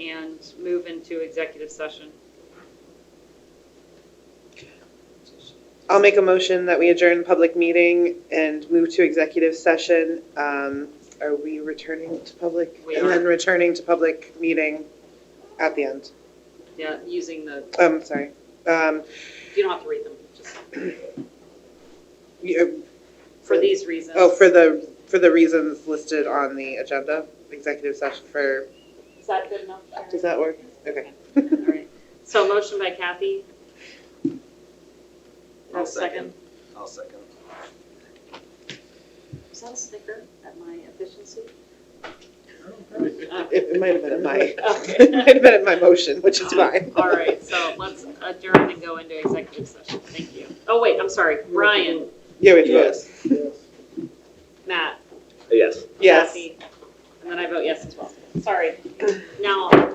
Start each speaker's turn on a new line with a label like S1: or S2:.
S1: and move into executive session.
S2: I'll make a motion that we adjourn the public meeting and move to executive session. Um, Are we returning to public?
S1: We
S2: And then
S1: are.
S2: returning to public meeting at the end.
S1: Yeah, using the,
S2: Um, sorry. Um,
S1: you don't have to read them, just
S2: you-
S1: for these reasons.
S2: Oh, for the, for the reasons listed on the agenda, executive session for,
S1: Is that good enough? Sharon?
S2: does that work? Okay.
S1: All right. So motion by Kathy. Have a second.
S3: I'll second.
S1: Is that a snicker at my efficiency?
S2: It it might have been in my,
S1: Okay.
S2: it might have been in my motion, which is fine.
S1: All right, so let's adjourn and go into executive session. Thank you. Oh, wait, I'm sorry. Brian,
S2: Yeah, we have to vote.
S1: Matt,
S3: Yes.
S2: Yes.
S1: Kathy, and then I vote yes as well. Sorry. Now,